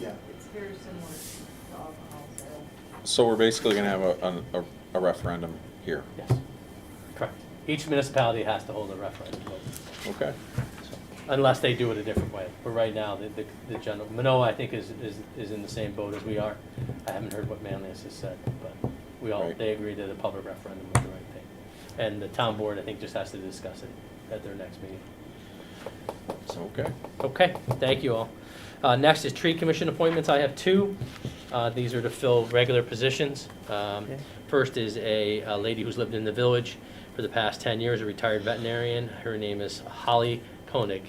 Yeah. It's very similar to alcohol sales. So we're basically gonna have a, a, a referendum here. Yes, correct. Each municipality has to hold a referendum vote, Okay. so, unless they do it a different way. But right now, the, the, the general, Manoa, I think, is, is, is in the same boat as we are. I haven't heard what Manlius has said, but we all, Right. they agreed that a public referendum was the right thing. And the town board, I think, just has to discuss it at their next meeting. Okay. Okay, thank you all. Uh, Next is tree commission appointments. I have two. Uh, These are to fill regular positions. Um, Okay. First is a a lady who's lived in the village for the past 10 years, a retired veterinarian. Her name is Holly Koenig.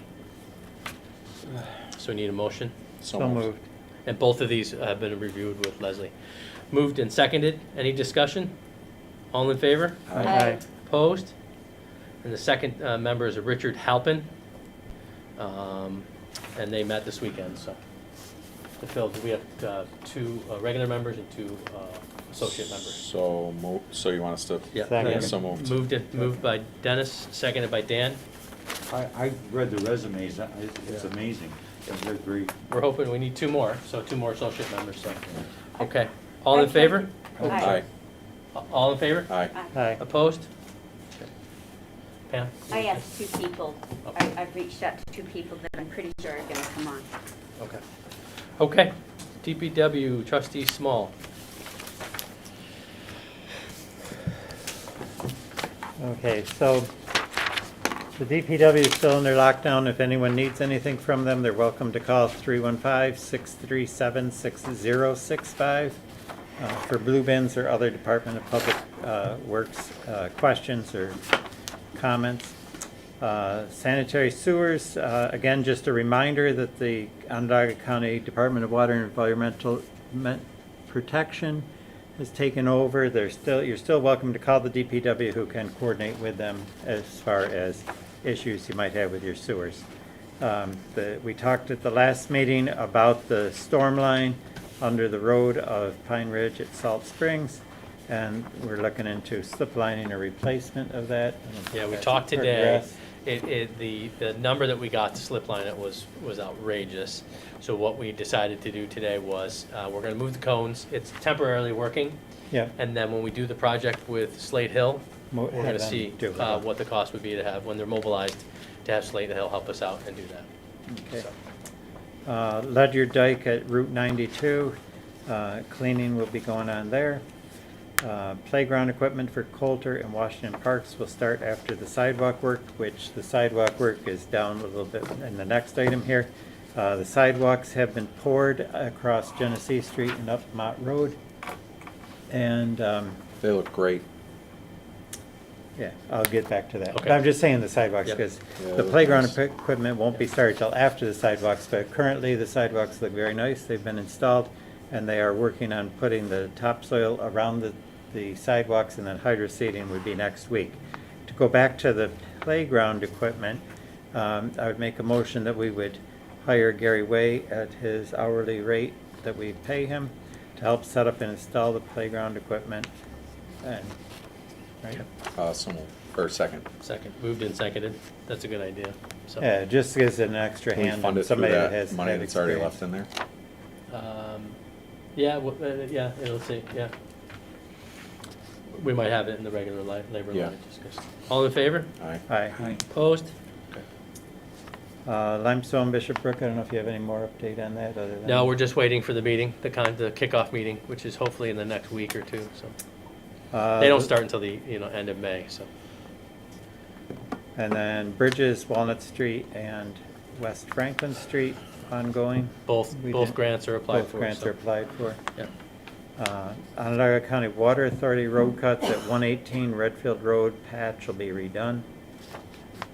So we need a motion. So moved. And both of these have been reviewed with Leslie. Moved and seconded. Any discussion? All in favor? Aye. Opposed? And the second uh, member is Richard Halpin. Um, And they met this weekend, so. To fill, we have uh, two uh, regular members and two uh, associate members. So mo, so you want us to? Yeah. Second. Yeah, So moved. Moved, it- moved by Dennis, seconded by Dan. I, I read the resumes, I- it's amazing, they're great. We're hoping, we need two more, so two more associate members, so. Okay. All in favor? Oh, Aye. All in favor? Aye. Aye. Opposed? Pam? I have two people. I, I've reached out to two people that I'm pretty sure are gonna come on. Okay. Okay, DPW trustee Small. Okay, so the DPW is still under lockdown. If anyone needs anything from them, they're welcome to call 315-637-6065 uh, for blue bins or other Department of Public uh, Works uh, questions or comments. Uh, Sanitary sewers, uh, again, just a reminder that the Onondaga County Department of Water and Environmental Men- Protection has taken over. They're still, you're still welcome to call the DPW who can coordinate with them as far as issues you might have with your sewers. Um, the- We talked at the last meeting about the storm line under the road of Pine Ridge at Salt Springs, and we're looking into slip lining or replacement of that. I don't think Yeah, we that's talked today. progressed. It, it, the, the number that we got to slip line it was, was outrageous. So what we decided to do today was, uh, we're gonna move the cones, it's temporarily working. Yeah. And then when we do the project with Slate Hill, Mo- we're gonna have them see, do it. uh, what the cost would be to have, when they're mobilized, to have Slate Hill help us out and do that. Okay. So, Uh, Ledyard Dyke at Route 92, uh, cleaning will be going on there. Uh, Playground equipment for Coulter and Washington Parks will start after the sidewalk work, which the sidewalk work is down a little bit in the next item here. Uh, The sidewalks have been poured across Genesee Street and up Mott Road. And, um, They look great. yeah, I'll get back to that. But Okay. I'm just saying the sidewalks, Yep. because Yeah, the those playground ones. equi- equipment won't be started till after the sidewalks, but currently the sidewalks look very nice. They've been installed, and they are working on putting the topsoil around the, the sidewalks, and then hydro seeding would be next week. To go back to the playground equipment, um, I would make a motion that we would hire Gary Way at his hourly rate that we pay him to help set up and install the playground equipment. And, right? Uh, so moved, or second. Second, moved and seconded, that's a good idea, so. Yeah, just gives it an extra Can we hand fund on it through somebody that that has. money had that's already experience. left in there? Um, yeah, well, uh, yeah, it'll see, yeah. We might have it in the regular li- labor Yeah. line, just 'cause- All in favor? Aye. Aye. Opposed? Uh, Limestone Bishop Brook, I don't know if you have any more update on that other than. No, we're just waiting for the meeting, the con, the kickoff meeting, which is hopefully in the next week or two, so. Uh, They don't start until the, you know, end of May, so. And then Bridges, Walnut Street and West Franklin Street ongoing. Both, We both did- grants are applied for. Both grants so- are applied for. Yeah, Uh, Onondaga County Water Authority road cuts at one eighteen Redfield Road patch will be redone.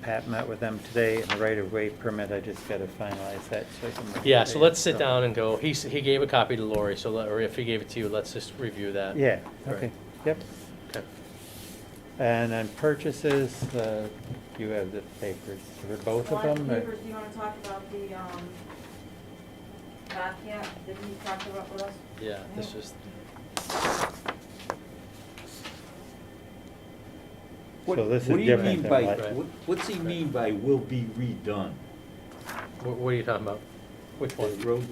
Pat met with them today and the right of way permit, I just gotta finalize that so I can. make yeah, it so there, let's sit down and go, he, s- he gave a copy to Lori, so, let- or if he gave it to you, let's just review that. Yeah, Right. okay, yep. Okay. And then purchases, uh, you have the papers for both of Well, them? Beavers, or- Do you wanna talk about the, um, Bobcat that he talked about with us? Yeah, this is, So What, this what is do you different mean than by, what- what- what's he mean by will be redone? what, what are you talking about? Which one? The road